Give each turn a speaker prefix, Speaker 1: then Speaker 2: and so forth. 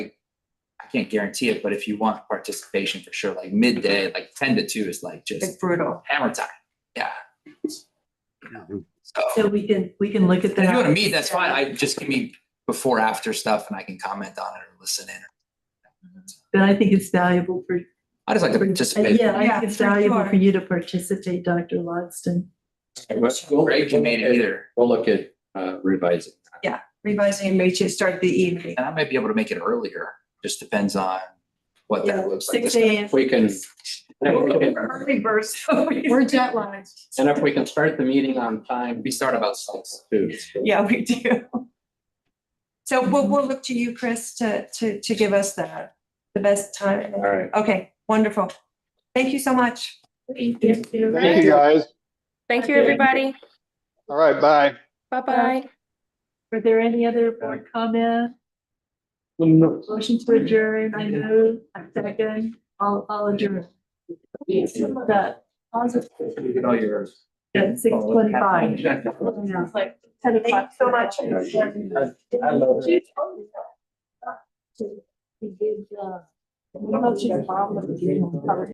Speaker 1: I can't guarantee it, but if you want participation for sure, like midday, like ten to two is like
Speaker 2: It's
Speaker 1: just
Speaker 2: brutal.
Speaker 1: hammer time. Yeah.
Speaker 3: So we can, we can look at
Speaker 1: If you want to
Speaker 3: that.
Speaker 1: meet, that's fine. I just give me before, after stuff and I can comment on it or listen in.
Speaker 3: But I think it's valuable for,
Speaker 1: I just like to
Speaker 3: uh,
Speaker 1: participate.
Speaker 3: yeah, I
Speaker 2: Yeah,
Speaker 3: think it's
Speaker 2: for
Speaker 3: valuable
Speaker 2: sure.
Speaker 3: for you to participate, Dr. Logston.
Speaker 1: Greg can make it either.
Speaker 4: We'll look at uh, revising.
Speaker 2: Revising and reaching, start the evening.
Speaker 1: And I might be able to make it earlier. Just depends on what that looks like.
Speaker 3: Six AM.
Speaker 4: If we can, and if we can-
Speaker 2: Early burst.
Speaker 3: We're jet lagged.
Speaker 4: and if we can start the meeting on time.
Speaker 1: We start about six.
Speaker 4: Too.
Speaker 2: Yeah, we do. So we'll, we'll look to you, Chris, to, to, to give us the, the best time.
Speaker 4: All right.
Speaker 2: Okay, wonderful. Thank you so much.
Speaker 5: Thank you, guys.
Speaker 6: Thank you, everybody.
Speaker 5: All right, bye.
Speaker 6: Bye-bye.
Speaker 3: Were there any other board comment? Motion to adjourn, I know, I second, I'll, I'll adjourn. Some of that positive,
Speaker 1: All yours.
Speaker 3: at six twenty-five. It's like ten
Speaker 2: Thank you
Speaker 3: o'clock.
Speaker 2: so much.
Speaker 4: I love it.
Speaker 3: We did, uh, we don't have to problem with the dream of cover.